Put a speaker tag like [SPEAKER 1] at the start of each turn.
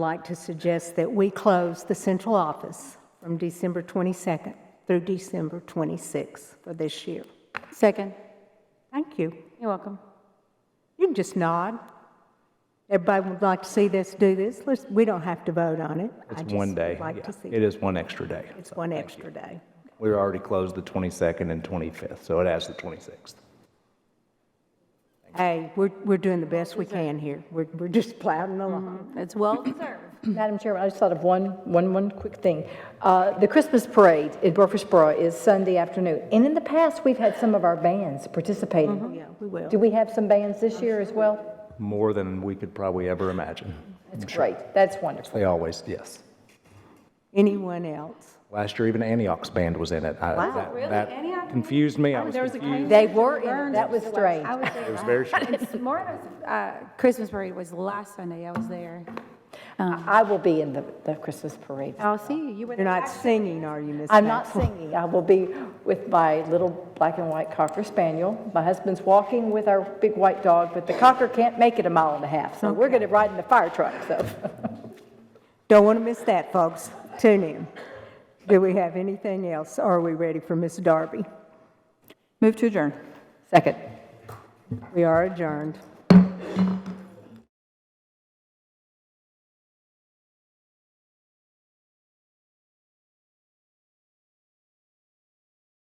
[SPEAKER 1] like to suggest that we close the central office from December 22nd through December 26th for this year.
[SPEAKER 2] Second.
[SPEAKER 1] Thank you.
[SPEAKER 2] You're welcome.
[SPEAKER 1] You can just nod. Everybody would like to see this, do this. Let's, we don't have to vote on it. I
[SPEAKER 3] It's
[SPEAKER 1] just
[SPEAKER 3] one day.
[SPEAKER 1] would like to
[SPEAKER 3] yeah.
[SPEAKER 1] see
[SPEAKER 3] It is one extra day.
[SPEAKER 1] It's one extra day.
[SPEAKER 3] We were already closed the 22nd and 25th, so it adds the 26th.
[SPEAKER 1] Hey, we're, we're doing the best we can here. We're, we're just plowing along.
[SPEAKER 2] It's well,
[SPEAKER 4] Madam Chairman, I just thought of one, one, one quick thing. Uh, The Christmas parade in Murfreesboro is Sunday afternoon, and in the past, we've had some of our bands participating.
[SPEAKER 1] Yeah, we will.
[SPEAKER 4] Do we have some bands this year as well?
[SPEAKER 3] More than we could probably ever imagine.
[SPEAKER 4] That's great, that's wonderful.
[SPEAKER 3] They always, yes.
[SPEAKER 1] Anyone else?
[SPEAKER 3] Last year, even Antioch's band was in it.
[SPEAKER 1] Wow.
[SPEAKER 3] Really? Antioch? Confused me. I was confused.
[SPEAKER 4] They were, in- that was strange.
[SPEAKER 5] I was there.
[SPEAKER 3] It was very strange.
[SPEAKER 5] It's Martha's, uh, Christmas parade was last Sunday. I was there.
[SPEAKER 4] I will be in the, the Christmas parade.
[SPEAKER 5] I'll Oh, see you. You were
[SPEAKER 1] You're
[SPEAKER 5] there.
[SPEAKER 1] not singing, are you, Ms.
[SPEAKER 4] I'm not
[SPEAKER 1] Maxwell?
[SPEAKER 4] singing, I will be with my little black and white cocker spaniel. My husband's walking with our big white dog, but the cocker can't make it a mile and a half, so we're gonna ride in the fire truck, so.
[SPEAKER 1] Don't want to miss that, folks. Tune in. Do we have anything else? Are we ready for Ms. Darby?
[SPEAKER 2] move to adjourn.
[SPEAKER 4] Second.
[SPEAKER 1] We are adjourned.